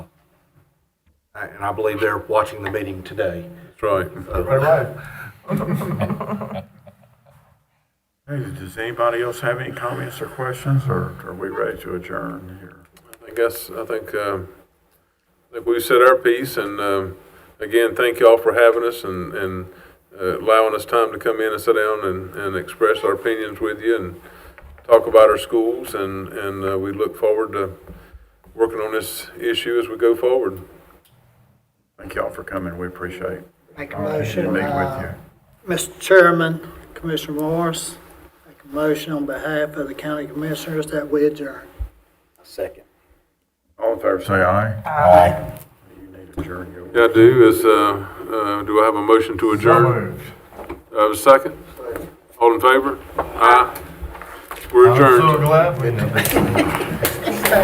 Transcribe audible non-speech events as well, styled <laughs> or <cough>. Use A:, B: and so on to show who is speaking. A: and I believe they're watching the meeting today.
B: That's right.
C: <laughs> Hey, Does anybody else have any comments or questions, or are we ready to adjourn here?
B: I guess, I think, um, I think we've said our piece, and, um, again, thank y'all for having us and, and uh, allowing us time to come in and sit down and, and express our opinions with you and talk about our schools, and, and uh, we look forward to working on this issue as we go forward.
C: Thank y'all for coming, we appreciate
D: Make a
C: all that
D: motion,
C: you meet with
D: uh,
C: you.
D: Mr. Chairman, Commissioner Morris, make a motion on behalf of the county commissioners that we adjourn.
A: Second.
C: All in favor, say aye. Aye. You need to adjourn your.
B: Yeah, I do, is, uh, uh, do I have a motion to adjourn? Do I have a second? All in favor? Aye. We're adjourned.
E: glad we did.